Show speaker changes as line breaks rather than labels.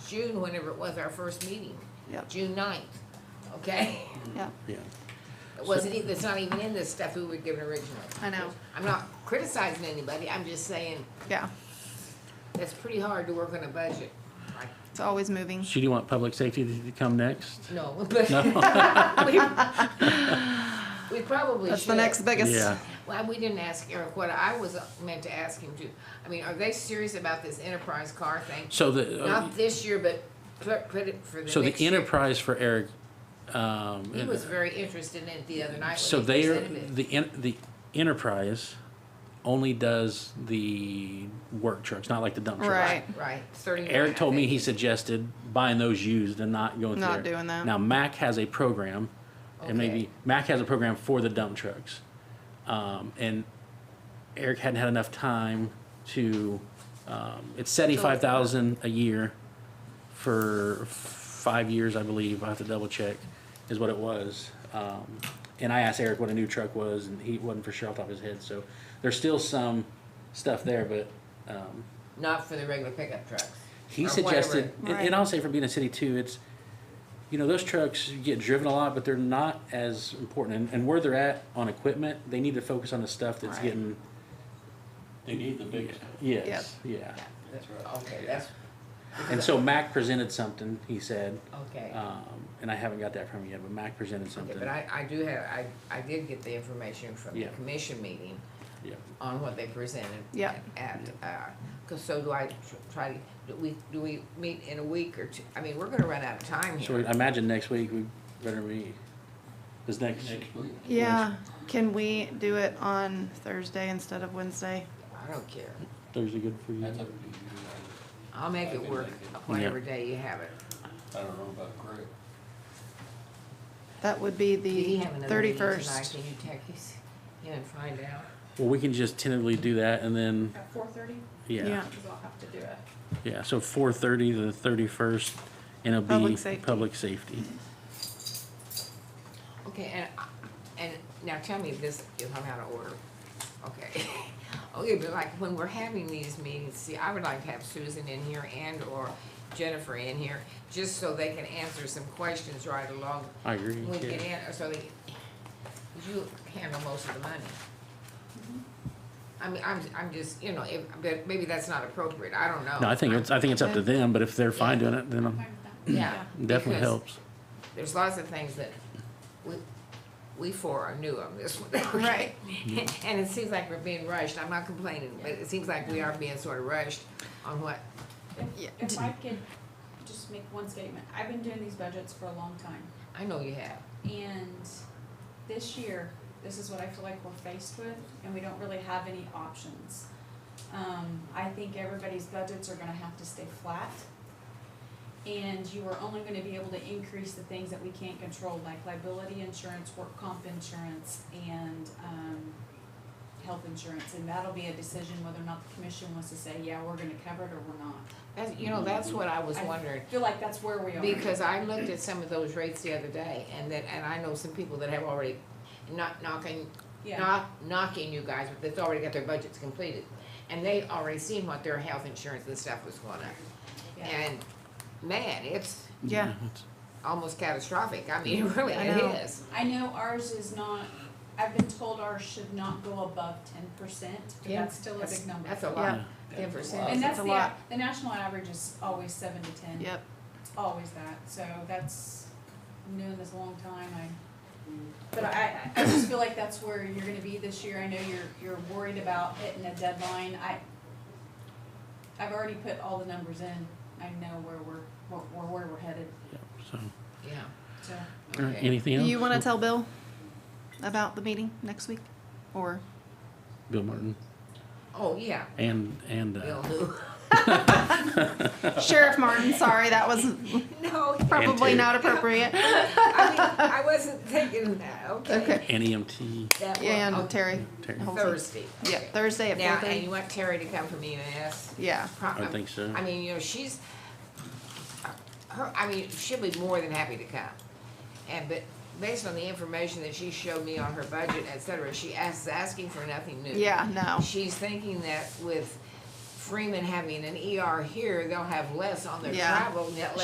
June, whenever it was our first meeting,
Yep.
June ninth, okay?
yeah,
yeah.
It wasn't, even. it's not even in the stuff we were given originally.
I know,
I'm not criticizing anybody, I'm just saying,
yeah,
that's pretty hard to work on a budget. Like,
it's always moving.
So do you want public safety to come next?
No, but
No?
we probably should.
That's the next biggest.
Yeah,
Well, we didn't ask Eric what I was meant to ask him to. I mean, are they serious about this enterprise car thing?
so the, uh,
Not this year, but put, put it for the next
so the
year.
enterprise for Eric, um.
He was very interested in it the other night
So
when he
they are,
presented it.
the, en- the enterprise only does the work trucks, not like the dump trucks.
Right.
Right, thirty-nine.
Eric told
I
me
think.
he suggested buying those used and not going through.
Not
there.
doing that.
Now Mac has a program, and
Okay.
maybe Mac has a program for the dump trucks, um, and Eric hadn't had enough time to. Um, it's seventy five thousand a year for five years, I believe. I have to double check, is what it was. Um, and I asked Eric what a new truck was, and he wasn't for sure off the top of his head. So there's still some stuff there, but. Um,
Not for the regular pickup trucks.
he
or
suggested, and,
Right.
and I'll say for being a city too, it's, you know, those trucks get driven a lot, but they're not as important. And, and where they're at on equipment, they need to focus on the stuff that's
Right.
getting,
They need the big stuff.
yes, yeah.
That's
whatever. Okay, that's,
And so Mac presented something, he said,
okay.
um, and I haven't got that from you yet, but Mac presented
Okay,
something.
but I, I do have, I, I did get the information from the
Yeah.
commission meeting
Yeah.
on what they presented.
Yeah.
At, uh, cause so do I tr- try to, do we, do we meet in a week or two? I mean, we're gonna run out of time
So
here.
I imagine next week we better be, is next,
Next week.
Yeah, can we do it on Thursday instead of Wednesday?
I don't care.
Thursday good for you?
That's up to you.
I'll make
I
it
can
work
make it.
whatever
Yeah.
day you have it.
I don't know about Greg.
That would be
Did he
the
have another meeting tonight?
thirty-first.
Can you text his- him and find out?
Well, we can just tentatively do that and then,
At four thirty,
yeah,
because I'll have to do it.
yeah, so four thirty, the thirty-first, and it'll be
Public safety.
public safety.
Okay, and, and now tell me this, if I'm out of order. Okay. Okay, but like when we're having these meetings, see, I would like to have Susan in here and or Jennifer in here, just so they can answer some questions right along.
I agree.
We
yeah.
can answer, so they, you handle most of the money. I mean, I'm, I'm just, you know, if, but maybe that's not appropriate, I don't know.
No, I think it's, I think it's up to
Okay.
them, but if they're fine doing it, then um,
Yeah.
definitely
because-
helps.
there's lots of things that we, we four are new on this one.
Right.
And it seems like we're being rushed, I'm not complaining, but it seems like we are being sort of rushed on what,
Yeah.
If, if I could just make one statement, I've been doing these budgets for a long time,
I know you have.
and this year, this is what I feel like we're faced with, and we don't really have any options. Um, I think everybody's budgets are gonna have to stay flat, and you are only gonna be able to increase the things that we can't control, like liability insurance, work comp insurance, and, um, health insurance, and that'll be a decision whether or not the commission wants to say, yeah, we're gonna cover it or we're not.
That's, you know, that's what I was
I-
wondering,
I feel like that's where we are.
because I looked at some of those rates the other day, and that, and I know some people that have already, not knocking,
Yeah,
not knocking you guys, but that's already got their budgets completed. And they already seen what their health insurance and stuff was going up,
yeah.
and man, it's
Yeah,
it's-
almost catastrophic, I mean, it really,
I know.
it is.
I know ours is not, I've been told ours should not go above ten percent, but
Yeah,
that's still a big number.
That's a
Yeah.
lot, ten
And
percent.
that's
That's a
the,
lot.
the national average is always seven to
Mm-hmm.
ten.
yep,
It's always that, so that's, I'm doing this a long time, I, but I, I I just feel like that's where you're gonna be this year, I know you're, you're worried about hitting a deadline, I, I've already put all the numbers in, I know where we're, where, where we're headed,
so,
Yeah.
so.
all right,
Okay.
anything
do
else?
you wanna tell Bill about the meeting next week, or?
Bill Martin
Oh, yeah,
and, and,
Bill
uh,
who?
Sheriff Martin, sorry, that was
No,
probably
Terry.
not appropriate.
I mean, I wasn't thinking that, okay.
Okay.
and EMT.
That one-
And
okay,
Terry.
Terry.
Holsey.
Thursday.
Yeah,
okay.
Thursday at
Now, and you
4:30.
want Terry to come from EMS?
Yeah,
Pro-
I think so.
I mean, you know, she's, her, I mean, she'll be more than happy to come. And, but based on the information that she showed me on her budget, et cetera, she asks, asking for nothing new.
yeah, no,
She's thinking that with Freeman having an ER here, they'll have less on their
Yeah.
travel, net less